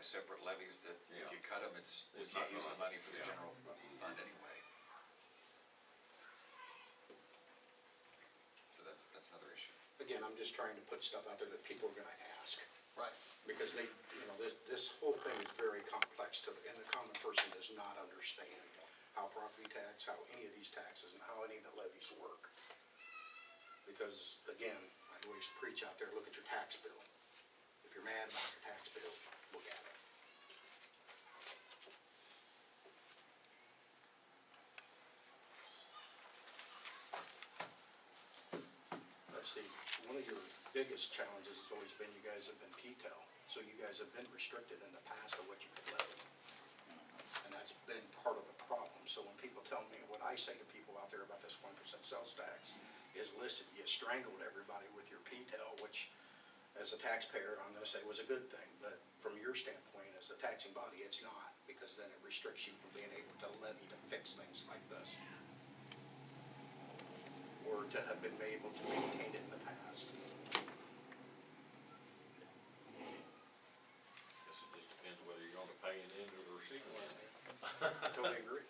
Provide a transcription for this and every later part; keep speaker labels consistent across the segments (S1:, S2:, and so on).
S1: separate levies that if you
S2: Yeah.
S1: cut them, it's, we
S2: It's
S1: can't
S2: not
S1: use the
S2: gonna-
S1: money for the
S2: yeah.
S1: general fund anyway. So that's, that's another issue.
S3: Again, I'm just trying to put stuff out there that people are gonna ask,
S4: Right.
S3: because they, you know, this, this whole thing is very complex to, and the common person does not understand how property tax, how any of these taxes, and how any of the levies work. Because, again, I always preach out there, look at your tax bill. If you're mad about your tax bill, look at it. Let's see, one of your biggest challenges has always been you guys have been P-TEL, so you guys have been restricted in the past of what you could levy. And that's been part of the problem, so when people tell me, what I say to people out there about this one percent sales tax is listen, you strangled everybody with your P-TEL, which as a taxpayer, I'm gonna say was a good thing, but from your standpoint, as a taxing body, it's not, because then it restricts you from being able to levy to fix things like this or to have been able to maintain it in the past.
S2: Guess it just depends whether you're gonna pay it into the receiving line.
S3: I totally agree.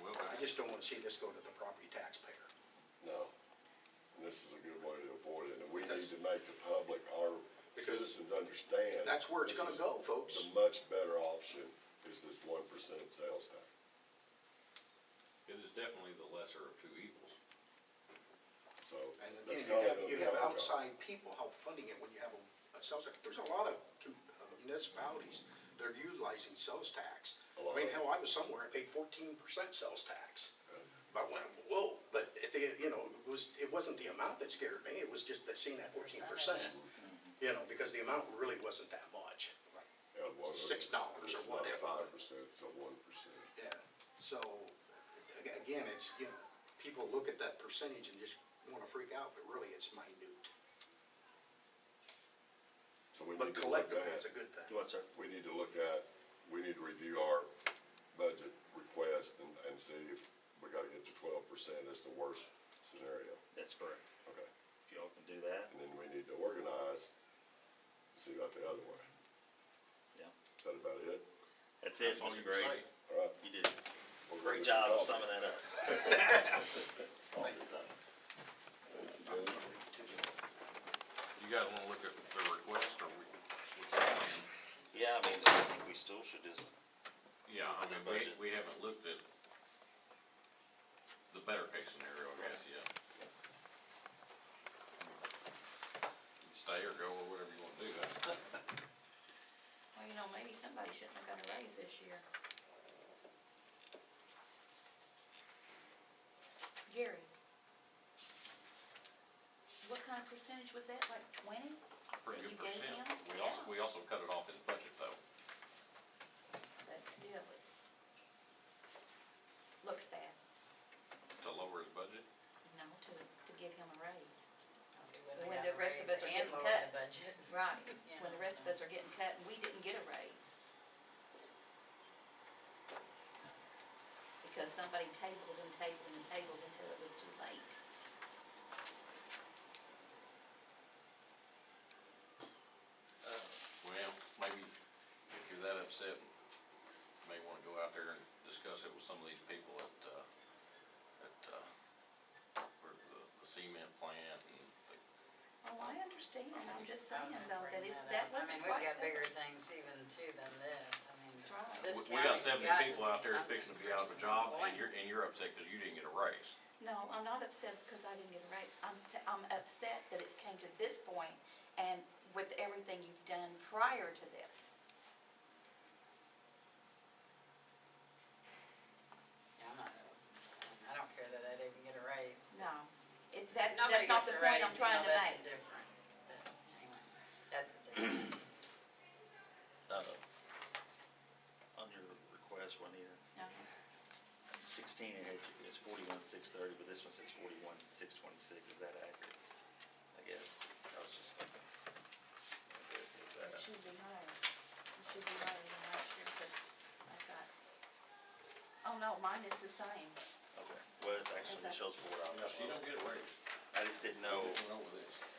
S1: Well,
S3: I
S1: but
S3: just don't want to see this go to the property taxpayer.
S5: No, And this is a good way to avoid it, and we need to make the public, our citizens understand.
S3: That's where it's
S5: this
S3: gonna
S5: is-
S3: go, folks.
S5: The much better option is this one percent sales tax.
S2: It is definitely the lesser of two evils.
S5: So
S3: And again, you
S5: that's kind
S3: have,
S5: of gonna
S3: you
S5: be
S3: have
S5: our job.
S3: outside people help funding it when you have a, a sales tax. There's a lot of com- uh, municipalities that are utilizing sales tax.
S5: A lot
S3: I mean,
S5: of-
S3: hell, I was somewhere, I paid fourteen percent sales tax.
S5: Yeah.
S3: But I went, whoa, but at the, you know, it was, it wasn't the amount that scared me, it was just that seeing that fourteen percent. You know, because the amount really wasn't that much.
S5: Yeah, one of-
S3: Six dollars or
S5: it's not
S3: whatever.
S5: Five percent, it's a one percent.
S3: Yeah, so, a- again, it's, you know, people look at that percentage and just wanna freak out, but really it's minute.
S5: So we
S3: But
S5: need to look
S3: collectively,
S5: at-
S3: it's a good thing.
S5: What's that? We need to look at, we need to review our budget request and, and see if we gotta get to twelve percent as the worst scenario.
S6: That's correct.
S5: Okay.
S6: If y'all can do that,
S5: And then we need to organize, and see about the other way.
S6: yeah.
S5: Is that about it?
S6: That's it,
S2: That's all
S6: Mr.
S2: you can say.
S6: Grace.
S5: All right.
S6: You did
S5: Well,
S6: a great
S5: Mr.
S6: job of
S5: Cobb.
S6: summing that up.
S2: You guys wanna look at the request or we?
S6: Yeah, I mean, I think we still should just,
S2: Yeah, I mean,
S6: Budget.
S2: we, we haven't looked at the better case scenario, I guess, yet. Stay or go or whatever you wanna do.
S7: Well, you know, maybe somebody shouldn't have got a raise this year. Gary. What kind of percentage was that, like twenty?
S2: Pretty good
S7: That you
S2: percent.
S7: gave
S2: We
S7: him?
S2: also,
S7: Yeah.
S2: we also cut it off his budget though.
S7: But still, it's, looks bad,
S2: to lower his budget?
S7: you know, to, to give him a raise.
S8: When the rest of us are getting
S7: cut.
S8: cut. budget.
S7: Right, when the rest of us are getting cut and we didn't get a raise. Because somebody tabled and tabled and tabled until it was too late.
S2: Well, maybe if you're that upset, you may wanna go out there and discuss it with some of these people at, uh, at, uh, where the, the cement plant and the
S7: Oh, I understand, I'm just saying though, that
S8: Bring
S7: is,
S8: up.
S7: that wasn't
S8: I mean,
S7: quite.
S8: we've got
S7: fair.
S8: bigger things even too than this, I mean.
S7: That's right.
S8: this
S2: We we got
S8: county's
S2: seventy
S8: got to
S2: people
S8: do
S2: out there
S8: something
S2: fixing to be out of a
S8: for
S2: job,
S8: some
S2: and you're, and you're upset because you didn't get a raise.
S7: No, I'm not upset because I didn't get a raise. I'm, t- I'm upset that it's came to this point and with everything you've done prior to this.
S8: employment. I'm not, I don't care that I didn't get a raise.
S7: No, it, that's,
S8: Nobody
S7: that's not the
S8: gets a
S7: point
S8: raise,
S7: I'm
S8: you
S7: trying
S8: know,
S7: to
S8: that's
S7: make.
S8: different, but anyway, that's a different.
S6: uh, on your request, Juanita,
S7: Uh-huh.
S6: sixteen, it had- it's forty-one, six thirty, but this one says forty-one, six twenty-six. Is that accurate? I guess. I was just looking. I guess it's
S7: It
S6: that.
S7: should be higher. It should be higher than last year, but I got, oh no, mine is the same.
S6: Okay. Well, it's actually, it shows four
S2: Now,
S6: dollars.
S2: she don't get a raise.
S6: I just didn't know.
S2: What's wrong with this?